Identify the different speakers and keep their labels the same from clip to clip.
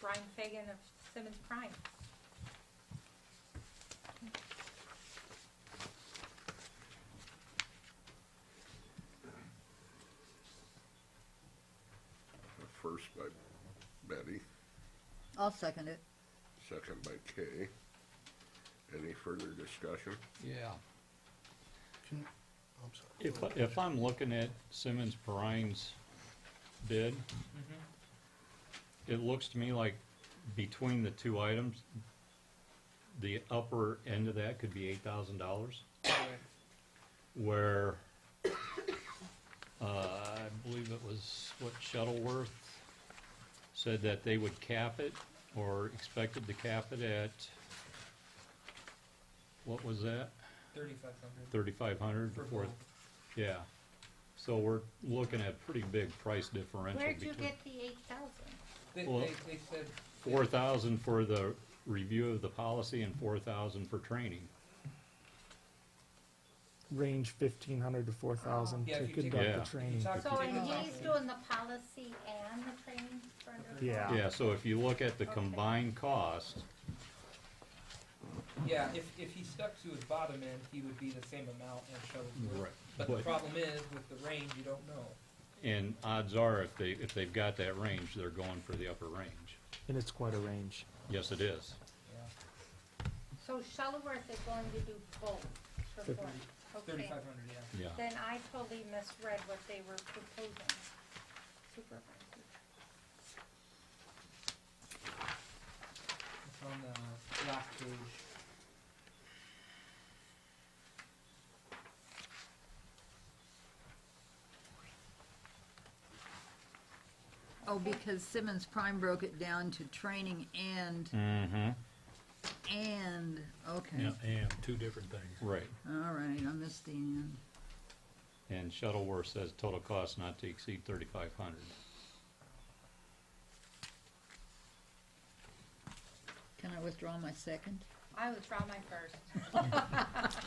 Speaker 1: Brian Fagan of Simmons Prime.
Speaker 2: First by Betty,
Speaker 3: I'll second it.
Speaker 2: second by Kay. Any further discussion?
Speaker 4: Yeah,
Speaker 5: Can, I'm sorry.
Speaker 4: if, I- if I'm looking at Simmons Perine's bid, it looks to me like between the two items, the upper end of that could be eight thousand dollars. Where, uh, I believe it was what Shuttleworth said that they would cap it or expected to cap it at, what was that?
Speaker 6: Thirty-five hundred.
Speaker 4: thirty-five hundred
Speaker 6: For
Speaker 4: for,
Speaker 6: both.
Speaker 4: yeah. So we're looking at pretty big price differential
Speaker 1: Where'd you
Speaker 4: between
Speaker 1: get the eight thousand?
Speaker 6: They,
Speaker 4: Well-
Speaker 6: they, they said.
Speaker 4: four thousand for the review of the policy and four thousand for training.
Speaker 7: range fifteen hundred to four thousand
Speaker 6: Yeah,
Speaker 7: to
Speaker 6: if you take-
Speaker 4: Yeah.
Speaker 7: conduct the
Speaker 6: if you
Speaker 7: training.
Speaker 6: talk to uh,
Speaker 1: So, and
Speaker 6: Taylor
Speaker 1: he's
Speaker 6: Hopkins-
Speaker 1: doing the policy and the training for under.
Speaker 7: Yeah.
Speaker 4: Yeah, so if you look at the
Speaker 1: Okay.
Speaker 4: combined cost,
Speaker 6: Yeah, if, if he stuck to his bottom end, he would be the same amount as Shuttleworth.
Speaker 4: Right,
Speaker 6: But the
Speaker 4: but-
Speaker 6: problem is, with the range, you don't know.
Speaker 4: and odds are if they, if they've got that range, they're going for the upper range.
Speaker 7: And it's quite a range.
Speaker 4: Yes, it is.
Speaker 6: Yeah,
Speaker 1: So Shuttleworth is going to do both for
Speaker 7: Fifty.
Speaker 1: four. Okay.
Speaker 6: thirty-five hundred, yeah.
Speaker 4: Yeah,
Speaker 1: Then I totally misread what they were proposing. Supervisor.
Speaker 6: It's on the last page.
Speaker 3: Oh, because Simmons Prime broke it down to training and,
Speaker 4: mm-hmm,
Speaker 3: and, okay.
Speaker 4: Yeah.
Speaker 8: And two different things.
Speaker 4: right.
Speaker 3: All right, I missed the end.
Speaker 4: And Shuttleworth says total cost not to exceed thirty-five hundred.
Speaker 3: Can I withdraw my second?
Speaker 1: I withdraw my first.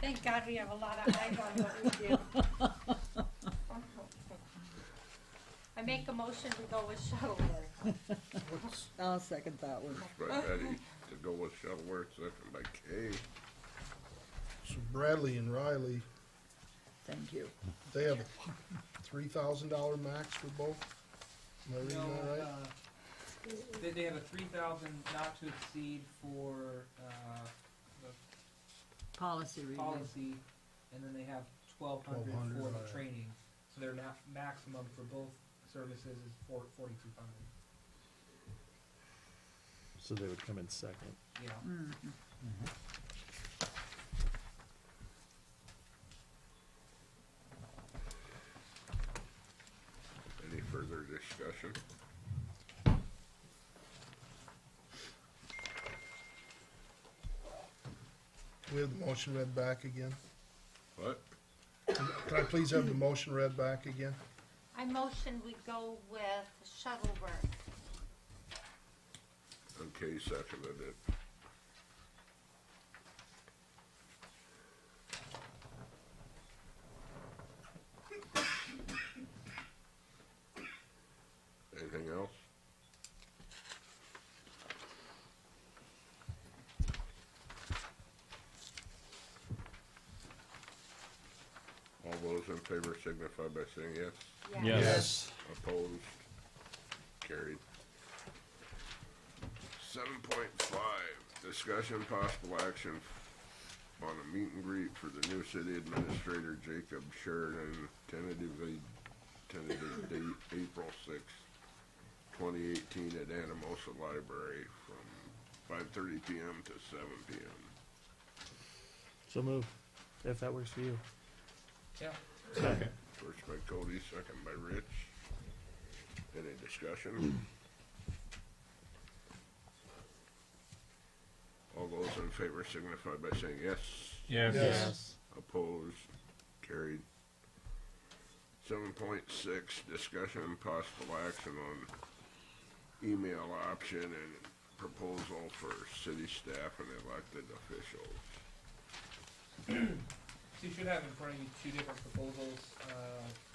Speaker 1: Thank God we have a lot of eyes on what we do. I make a motion to go with Shuttleworth.
Speaker 5: What's,
Speaker 3: I'll second that one.
Speaker 2: By Betty, to go with Shuttleworth, second by Kay.
Speaker 5: so Bradley and Riley,
Speaker 3: Thank you.
Speaker 5: they have a three thousand dollar max for both? Am I reading that
Speaker 6: No,
Speaker 5: right?
Speaker 6: uh, they, they have a three thousand not to exceed for, uh, the
Speaker 3: Policy review.
Speaker 6: policy, and then they have twelve hundred
Speaker 5: 1,200,
Speaker 6: for the
Speaker 5: right.
Speaker 6: training. So their ma- maximum for both services is four, forty-two hundred,
Speaker 7: So they would come in second.
Speaker 6: yeah.
Speaker 3: Mm.
Speaker 2: Any further discussion?
Speaker 5: We have the motion read back again.
Speaker 2: What?
Speaker 5: Can I please have the motion read back again?
Speaker 1: I motion we go with Shuttleworth.
Speaker 2: And Kay seconded it. Anything else? All those in favor signify by saying yes.
Speaker 4: Yes.
Speaker 2: Opposed? Carried. Seven point five, discussion possible action on a meet and greet for the new city administrator Jacob Sheridan, tentatively, tentative date April sixth, twenty eighteen at Anamosa Library from five thirty PM to seven PM.
Speaker 7: So move, if that works for you.
Speaker 6: Yeah.
Speaker 7: Second.
Speaker 2: First by Cody, second by Rich. Any discussion? All those in favor signify by saying yes.
Speaker 8: Yes.
Speaker 2: Opposed, carried. Seven point six, discussion and possible action on email option and proposal for city staff and elected officials.
Speaker 6: So you should have in front of you two different proposals, uh, um,